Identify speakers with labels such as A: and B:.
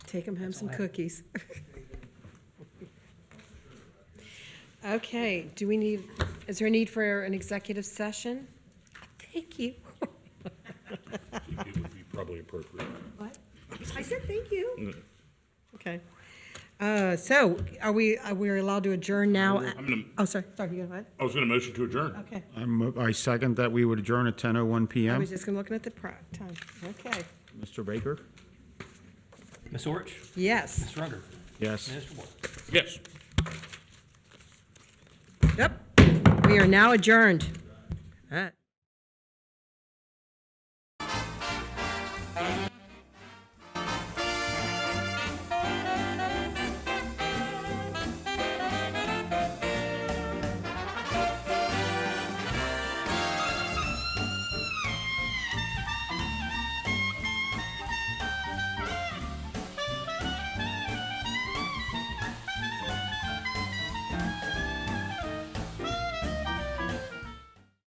A: Take them home
B: That's
A: some
B: all I-
A: cookies. Okay, do we need, is there a need for an executive session? Thank you.
C: It would be probably appropriate.
A: What? I said thank you. Okay. Uh, so are we, are we allowed to adjourn now?
C: I'm gonna,
A: Oh, sorry, sorry, you go ahead.
C: I was gonna motion to adjourn.
A: Okay.
D: I'm, I second that we would adjourn at 10:01
A: I
D: PM.
A: was just gonna looking at the pro- time. Okay.
D: Mr. Baker?
B: Ms. Orich,
A: Yes.
B: Ms. Runder,
D: Yes.
B: Mr. Moore.
C: Yes.
A: Yep. We are now adjourned.